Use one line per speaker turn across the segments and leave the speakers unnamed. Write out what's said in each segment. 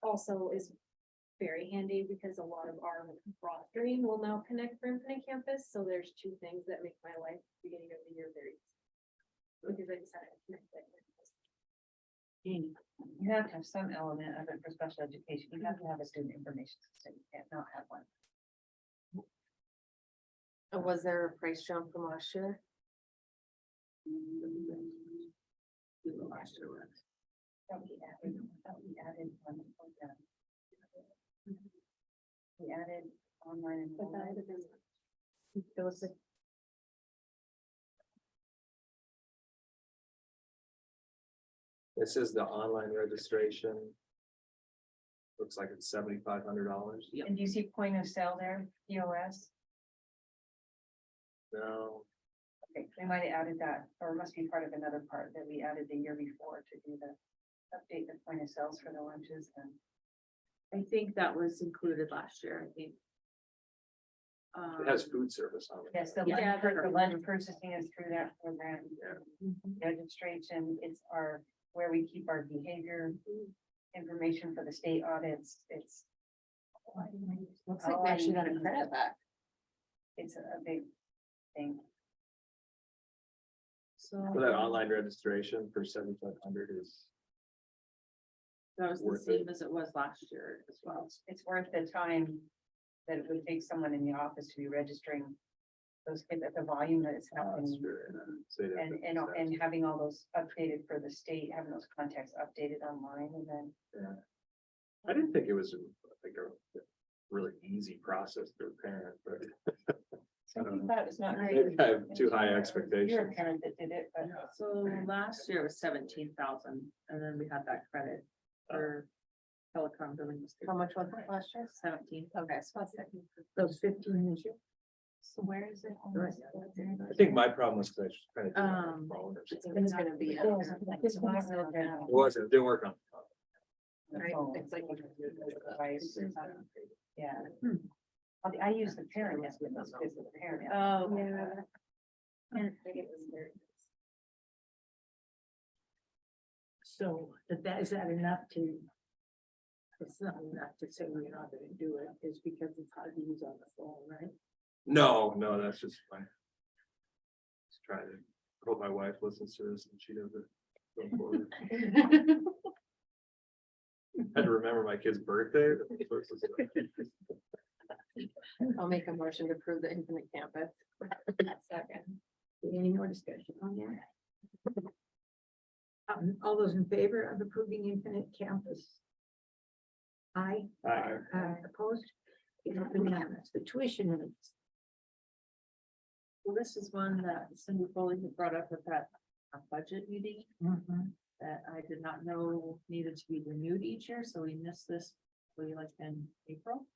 also is very handy because a lot of our broad stream will now connect for Infinite Campus, so there's two things that make my life beginning of the year very. easy, Because I decided to connect that.
You have to have some element of it for special education. You have to have a student information system. You can't not have one.
Was there a price jump from last year?
That we added, that we added one program. We added online
But that
enrollment.
would have been-
It was a.
This is the online registration. Looks like it's seventy-five hundred dollars.
And do you see point of sale there, POS?
No,
Okay, we might have added that, or it must be part of another part that we added the year before to do the update the point of sales for the lunches and.
I think that was included last year, I think.
it has food service on it.
Yes, the
Yeah,
lunch,
the-
pur- the lunch purchasing is through that program.
Yeah.
Registration, it's our, where we keep our behavior information for the state audits, it's.
Looks like we actually got a credit back,
It's a big thing.
so
For that online registration for seventy-five hundred is,
that was the
worth it.
same as it was last year as well.
It's- It's worth the time that it would take someone in the office to be registering those kids at the volume that it's
uh,
happening.
sure, and I'd say that-
And, and, and having all those updated for the state, having those contacts updated online and then.
I didn't think it was like a really easy process for a parent, but I
Some
don't
people
know.
thought it was not very.
Maybe I have
easy.
too high
You're a
expectations.
parent that did it, but
So last year it was seventeen thousand, and then we had that credit for telecom billing. How much was it last year? Seventeen. Okay, so that's it. Those fifteen is
so where is it?
The rest
I think my problem was that I was trying to do it on
Um,
my phone or something.
It's gonna be. up there.
This one's not good.
It wasn't, it didn't work on.
Right, it's like-
Device. Yeah. I- I use the parent as with those kids with the parent.
Oh.
Yeah.
So, but that, is that enough to? It's not enough to say we're not gonna do it, is because it's hard to use on the phone, right?
No, no, that's just fine. Just trying to, hope my wife listens to this and she doesn't. go forward. Had to remember my kid's birthday.
I'll make a motion to approve the infinite campus. Second.
Any more discussion on that? Um, all those in favor of approving infinite campus? Aye.
Aye.
Uh, opposed? It's unanimous, the tuition rates.
Well, this is one that Cindy Foley had brought up at that uh, budget meeting that I did not know needed to be renewed each year, so we missed this, we like in April.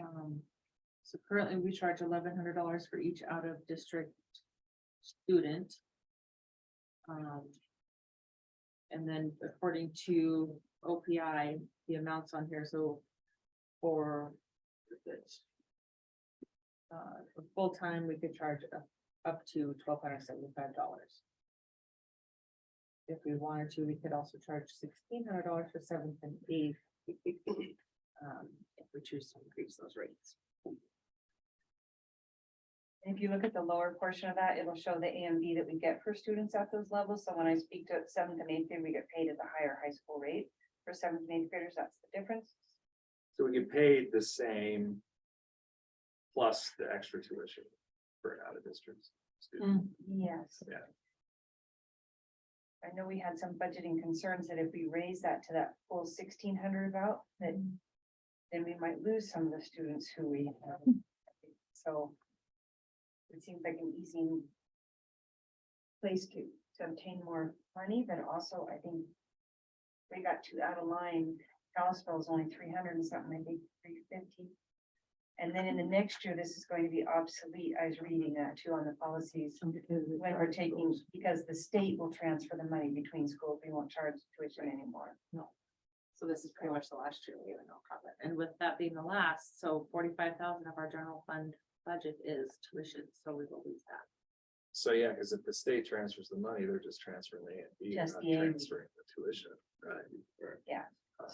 Um, so currently we charge eleven hundred dollars for each out of district student. Um. And then according to OPI, the amounts on here, so for the uh, for full-time, we could charge up, up to twelve hundred seventy-five dollars. If we wanted to, we could also charge sixteen hundred dollars for seventh and eighth. Um, if we choose to increase those rates.
If you look at the lower portion of that, it'll show the AMV that we get for students at those levels. So when I speak to seventh and eighth grade, we get paid at the higher high school rate. For seventh and eighth graders, that's the difference.
So we get paid the same. Plus the extra tuition for an out of district student.
Yes.
Yeah.
I know we had some budgeting concerns that if we raise that to that full sixteen hundred about, that then we might lose some of the students who we have. So it seems like an easy place to, to obtain more money, but also I think we got too out of line. Kalispell's only three hundred and something, I think three fifty. And then in the next year, this is going to be obsolete. I was reading that too on the policies when we're taking, because the state will transfer the money between schools, we won't charge tuition anymore.
So this is pretty much the last year we have no comment. And with that being the last, so forty-five thousand of our general fund budget is tuition, so we will lose that.
So yeah, because if the state transfers the money, they're just transferring the, A and B,
Just
not
the A and B.
transferring the tuition, right?
Yeah.